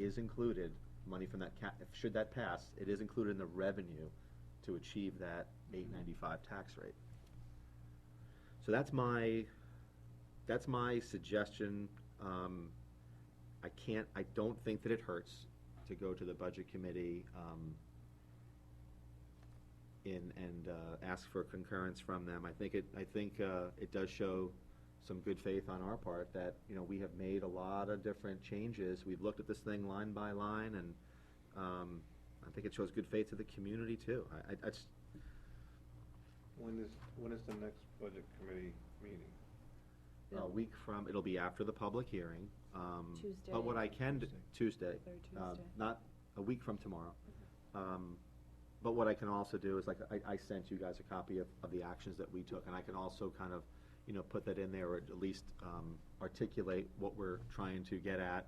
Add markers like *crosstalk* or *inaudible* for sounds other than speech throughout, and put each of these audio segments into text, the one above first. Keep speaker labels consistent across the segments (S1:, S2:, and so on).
S1: is included, money from that ca, if- should that pass, it is included in the revenue to achieve that eight ninety-five tax rate. So that's my, that's my suggestion. Um, I can't, I don't think that it hurts to go to the budget committee, um, in, and, uh, ask for concurrence from them. I think it, I think, uh, it does show some good faith on our part that, you know, we have made a lot of different changes. We've looked at this thing line by line and, um, I think it shows good faith to the community too. I, I, that's,
S2: When is, when is the next budget committee meeting?
S1: a week from, it'll be after the public hearing. um,
S3: Tuesday.
S1: But what I can, d- Tuesday,
S3: Third
S1: uh,
S3: Tuesday.
S1: not a week from tomorrow. Um, But what I can also do is, like, I, I sent you guys a copy of, of the actions that we took, and I can also kind of, you know, put that in there, or at least um, articulate what we're trying to get at,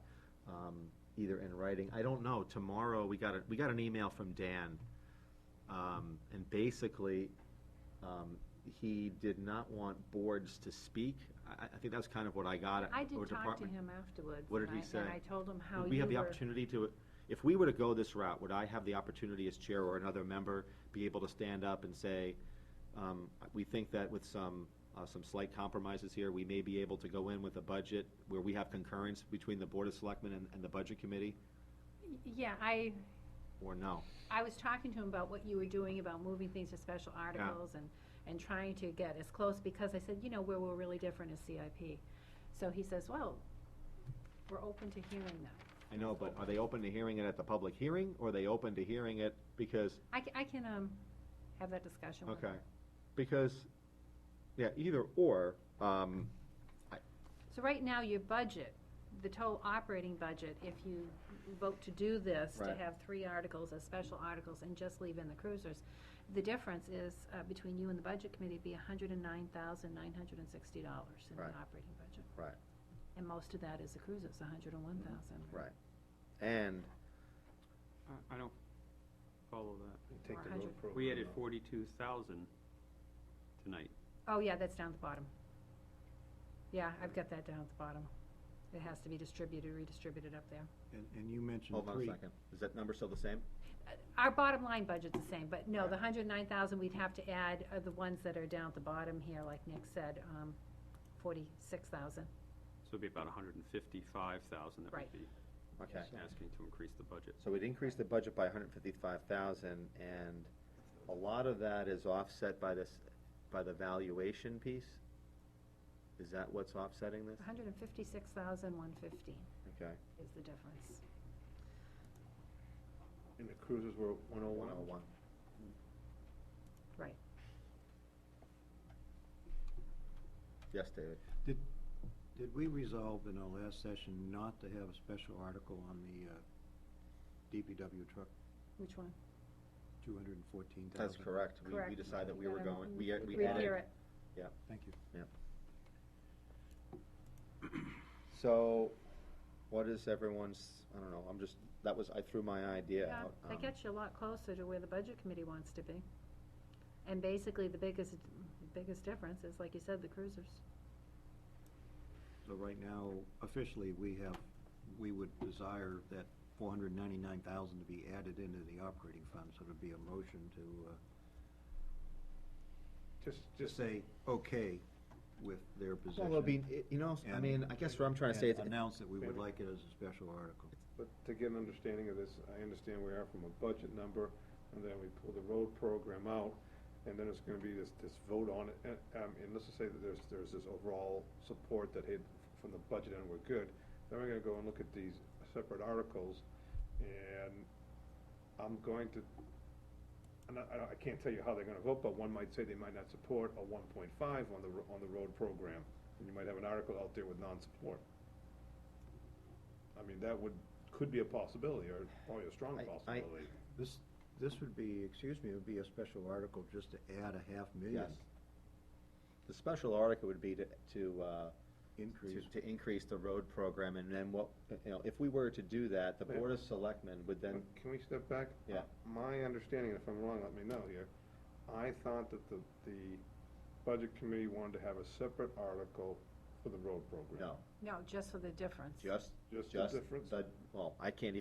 S1: um, either in writing. I don't know, tomorrow, we got a, we got an email from Dan, um, and basically, um, he did not want boards to speak. I, I think that's kind of what I got.
S3: I
S1: or
S3: did talk to
S1: department-
S3: him afterwards.
S1: What
S3: and
S1: did he
S3: I- And
S1: say?
S3: I told him how you were.
S1: We have the opportunity to, if we were to go this route, would I have the opportunity as chair or another member be able to stand up and say, um, we think that with some, uh, some slight compromises here, we may be able to go in with a budget where we have concurrence between the Board of Selectmen and, and the Budget Committee,
S3: Yeah, I,
S1: or no?
S3: I was talking to him about what you were doing about moving things to special articles and, and trying to get as close, because I said, you know, where we're really different is CIP. So he says, well, we're open to hearing that.
S1: I know, but are they open to hearing it at the public hearing, or are they open to hearing it because
S3: I, ca- I can, um, have that discussion with him.
S1: Okay, because, yeah, either or, um,
S3: So right now, your budget, the total operating budget, if you vote to do this, to
S1: Right.
S3: have three articles as special articles and just leave in the cruisers, the difference is, uh, between you and the budget committee, would be hundred and nine thousand, nine hundred and sixty dollars in the
S1: Right.
S3: operating budget.
S1: Right.
S3: And most of that is the cruisers, hundred and one thousand.
S1: Mm-hmm. right, and,
S4: I, I don't follow that.
S2: Take the road
S3: 400.
S2: program.
S4: We added
S2: out.
S4: forty-two thousand tonight.
S3: Oh, yeah, that's down at the bottom. Yeah, I've got that down at the bottom. It has to be distributed, redistributed up there.
S5: And, and you mentioned
S1: hold on a
S5: three.
S1: second, is that number still the same?
S3: Uh, Our bottom line budget's the same, but no, the hundred and nine thousand, we'd have to add are the ones that are down at the bottom here, like Nick said, um, forty-six thousand.
S4: So it'd be about hundred and fifty-five thousand that
S3: Right.
S4: would be
S1: Okay.
S4: asking to increase the budget.
S1: So we'd increase the budget by hundred and fifty-five thousand, and a lot of that is offset by this, by the valuation piece? Is that what's offsetting this?
S3: hundred and fifty-six thousand, one fifteen
S1: Okay.
S3: is the difference.
S2: And the cruises were one oh one?
S1: One oh one.
S3: Right.
S1: Yes, David?
S5: Did, did we resolve in our last session not to have a special article on the, uh, DPW truck,
S3: Which one?
S5: two hundred and fourteen thousand?
S1: That's correct. We, we
S3: Correct.
S1: decided that we were
S3: Um,
S1: going, we, uh, we
S3: Rehear
S1: added.
S3: it.
S5: Thank you. *clears throat*
S1: So, what is everyone's, I don't know, I'm just, that was, I threw my idea
S3: Yeah,
S1: out. um,
S3: That gets you a lot closer to where the budget committee wants to be. And basically, the biggest, biggest difference is, like you said, the cruisers.
S5: So right now, officially, we have, we would desire that four hundred ninety-nine thousand to be added into the operating fund, so it'd be a motion to, uh,
S2: Just,
S5: just
S2: just,
S5: say, okay, with their position.
S1: Well, it'll be, it- you know, I
S5: and-
S1: mean, I guess what I'm trying to say is,
S5: and Announce that we would like it as a special article.
S2: but to get an understanding of this, I understand we are from a budget number, and then we pull the road program out, and then it's gonna be this, this vote on it, and, um, and let's just say that there's, there's this overall support that, hey, from the budget and we're good, then we're gonna go and look at these separate articles, and I'm going to, and I, I don't- I can't tell you how they're gonna vote, but one might say they might not support a one point five on the, ro- on the road program, and you might have an article out there with non-support. I mean, that would, could be a possibility, or probably a strong
S1: I- I-
S2: possibility.
S5: This, this would be, excuse me, it would be a special article just to add a half million
S1: yes. The special article would be to, to, uh,
S5: increase.
S1: to, to increase the road program, and then what, you know, if we were to do that, the
S2: Yeah.
S1: Board of Selectmen would then,
S2: But Can we step back?
S1: Yeah.
S2: My understanding, if I'm wrong, let me know here, I thought that the, the budget committee wanted to have a separate article for the road program.
S1: no,
S3: No, just for the difference.
S1: just,
S2: Just the
S1: just,
S2: difference?
S1: the, well, I can't even